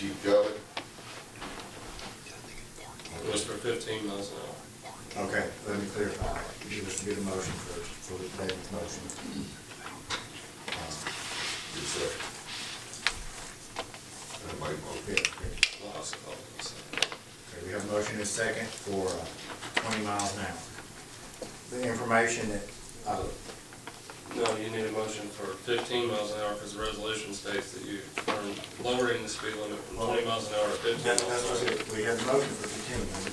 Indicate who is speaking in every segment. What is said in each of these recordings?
Speaker 1: you've got it?
Speaker 2: It was for fifteen miles an hour.
Speaker 3: Okay, let me clarify. You just do the motion first, so that David's motion. uh,
Speaker 1: Is that? Everybody
Speaker 3: yeah,
Speaker 1: vote.
Speaker 3: Okay,
Speaker 2: Well, I suppose it's,
Speaker 3: Okay, we have a motion and a second for uh, twenty miles an hour. The information that, uh,
Speaker 2: uh, No, you need a motion for fifteen miles an hour because the resolution states that you are lowering the speed limit from twenty miles an hour to
Speaker 3: that-
Speaker 2: fifteen
Speaker 3: that's
Speaker 2: miles
Speaker 3: what
Speaker 2: an hour.
Speaker 3: it- we have the motion for fifteen.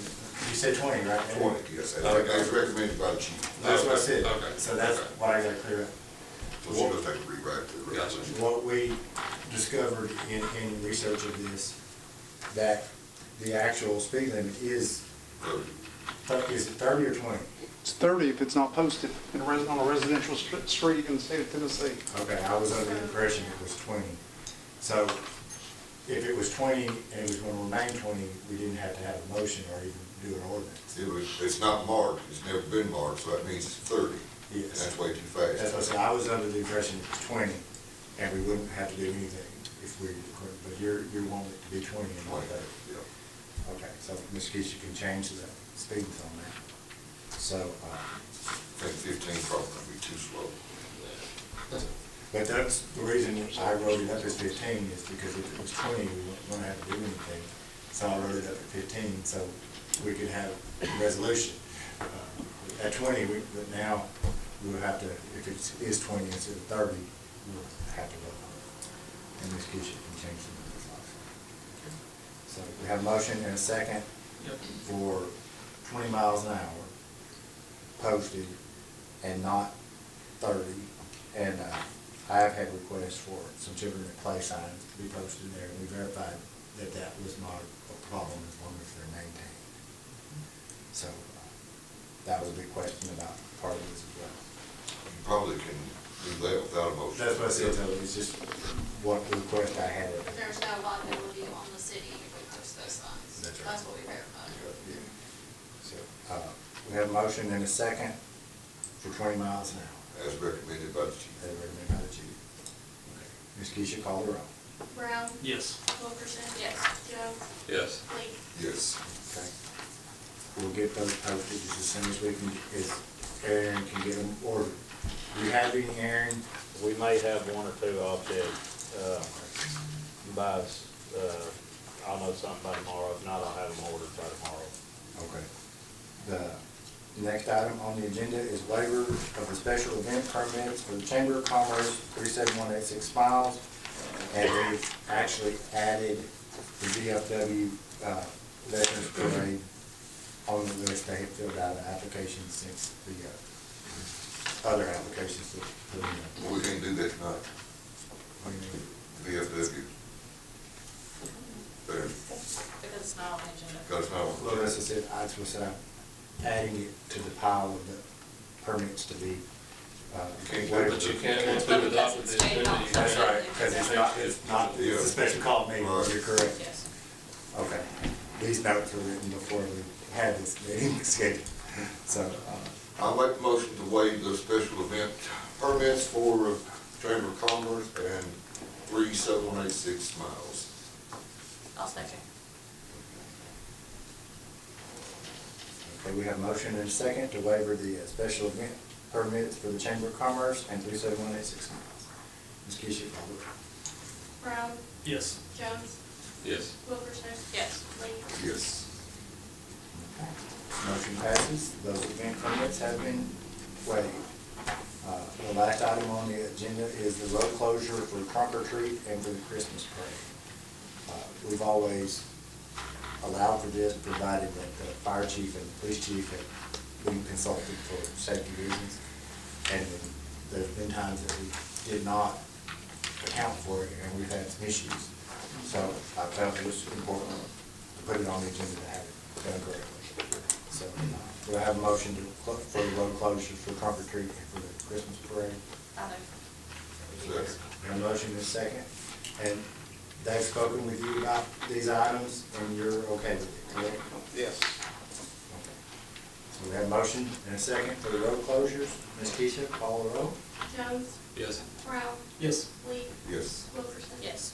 Speaker 3: You said twenty, right? David?
Speaker 1: Twenty, yes, I think that's recommended by the chief.
Speaker 3: That's what I said.
Speaker 2: Okay,
Speaker 3: So that's
Speaker 2: okay.
Speaker 3: what I gotta clear up.
Speaker 1: So she does have to rewrite the
Speaker 2: Gotcha.
Speaker 1: resolution.
Speaker 3: What we discovered in, in research of this, that the actual speed limit is, is it thirty or twenty?
Speaker 4: It's 30 if it's not posted in a res- on a residential str- street in the state of Tennessee.
Speaker 3: Okay, I was under the impression it was twenty. So if it was twenty and it was gonna remain twenty, we didn't have to have a motion or even do an ordinance.
Speaker 1: It was, it's not marked, it's never been marked, so that means it's thirty.
Speaker 3: Yes.
Speaker 1: That's way too
Speaker 3: That's what I
Speaker 1: fast.
Speaker 3: said, I was under the impression it was twenty and we wouldn't have to do anything if we, but you're, you want it to be twenty and all
Speaker 1: Twenty,
Speaker 3: that.
Speaker 1: yeah.
Speaker 3: Okay, so Ms. Keisha can change the speed on that. So, uh,
Speaker 1: I think fifteen probably would be too slow.
Speaker 3: but that's the reason I wrote it up as fifteen is because if it was twenty, we wouldn't wanna have to do anything. So I wrote it up at fifteen, so we could have a resolution. Uh, At twenty, we, but now we would have to, if it is twenty instead of thirty, we'll have to vote on it. And Ms. Keisha can change the numbers also. So we have a motion and a second
Speaker 2: Yep.
Speaker 3: for twenty miles an hour posted and not thirty. And uh, I have had requests for some children at play signs to be posted there, and we verified that that was not a problem as long as they're maintained. So uh, that was a big question about part of this as well.
Speaker 1: You probably can do that without a motion.
Speaker 3: That's what I said, so it's just what the request I had.
Speaker 5: But there's no liability on the city if we post those signs.
Speaker 3: That's right.
Speaker 5: That's what we verified.
Speaker 3: Yeah. So, uh, we have a motion and a second for twenty miles an hour,
Speaker 1: As recommended by the chief.
Speaker 3: as recommended by the chief. Okay. Ms. Keisha, call the roll.
Speaker 6: Brown,
Speaker 7: Yes.
Speaker 6: Wilkerson.
Speaker 5: Yes.
Speaker 6: Jones,
Speaker 2: Yes.
Speaker 6: Lee.
Speaker 1: Yes.
Speaker 3: Okay. We'll get those posted just as soon as we can, as Aaron can get them ordered. Do you have any, Aaron?
Speaker 8: We may have one or two offset, uh, by, uh, I'll know something by tomorrow, if not, I'll have them ordered by tomorrow.
Speaker 3: Okay. The next item on the agenda is waiver of the special event permits for the Chamber of Commerce, three seven one eight six miles. And we actually added the VFW, uh, Veterans Parade on the list. They had filled out an application since the, uh, other applications that, that,
Speaker 1: Well, we can do that tonight. VFW. There,
Speaker 5: Because it's not on the agenda.
Speaker 1: got us now.
Speaker 3: Well, that's just it, I just said, I'm adding it to the pile of the permits to be. uh,
Speaker 1: You can't do it,
Speaker 3: waived.
Speaker 2: But you can't, once we've adopted this, then you can't.
Speaker 3: That's right, because it's not, it's not, it's a special call meeting, you're correct.
Speaker 5: Yes.
Speaker 3: Okay. These notes were written before we had this meeting scheduled, so, uh,
Speaker 1: I'll make the motion to waive the special event permits for uh, Chamber of Commerce and three seven one eight six miles.
Speaker 5: I'll second.
Speaker 3: okay, we have a motion and a second to waiver the uh, special event permits for the Chamber of Commerce and three seven one eight six miles. Ms. Keisha, call the roll.
Speaker 6: Brown,
Speaker 7: Yes.
Speaker 6: Jones,
Speaker 2: Yes.
Speaker 6: Wilkerson.
Speaker 5: Yes.
Speaker 6: Lee.
Speaker 1: Yes.
Speaker 3: Motion passes, those event permits have been waived. Uh, The last item on the agenda is the road closure for trunk or treat and for the Christmas parade. Uh, We've always allowed for this, provided that the fire chief and the police chief have been consulted for safety reasons. And there's been times that we did not account for it, and we've had some issues. So I felt it was important to put it on the agenda to have it done correctly. So uh, do I have a motion to, clo- for the road closure for Concord Creek and for the Christmas parade?
Speaker 5: I know.
Speaker 1: Second.
Speaker 3: We have a motion and a second. And they've spoken with you about these items, and you're okay with it, correct?
Speaker 4: Yes.
Speaker 3: Okay. So we have a motion and a second for the road closures. Ms. Keisha, call the roll.
Speaker 6: Jones,
Speaker 2: Yes.
Speaker 6: Brown,
Speaker 7: Yes.
Speaker 6: Lee.
Speaker 1: Yes.
Speaker 6: Wilkerson.
Speaker 5: Yes.